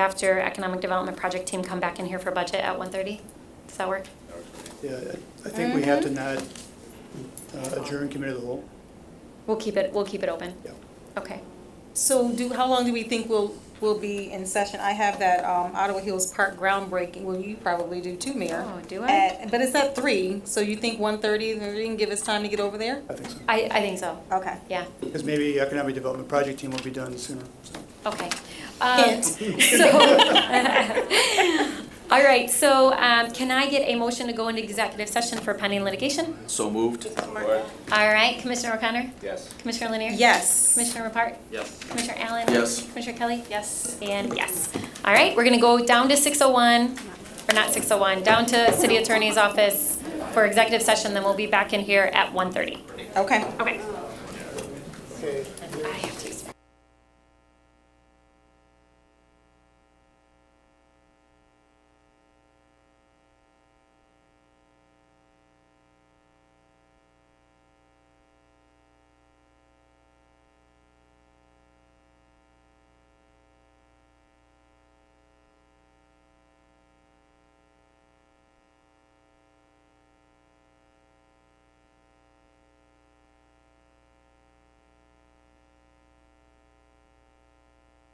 after Economic Development Project Team come back in here for budget at 1:30? Does that work? Yeah, I- I think we have to not uh, adjourn committee of the whole. We'll keep it, we'll keep it open. Yeah. Okay. So do, how long do we think we'll, we'll be in session? I have that um, Ottawa Hills Park groundbreaking, well, you probably do too, Mayor. Oh, do I? At- But it's at three, so you think one thirty, they can give us time to get over there? I think so. I, I think so, Okay. yeah, Because maybe economic development project team will be done sooner. so. okay. Um, So, all right, so um, can I get a motion to go into executive session for pending litigation? So moved. All right, Commissioner O'Connor? Yes. Commissioner Lanier? Yes. Commissioner Repart? Yes. Commissioner Allen? Yes. Commissioner Kelly? Yes. And yes. All right, we're going to go down to 601, or not 601, down to City Attorney's Office for executive session, then we'll be back in here at 1:30. Okay. Okay. Okay. Bye.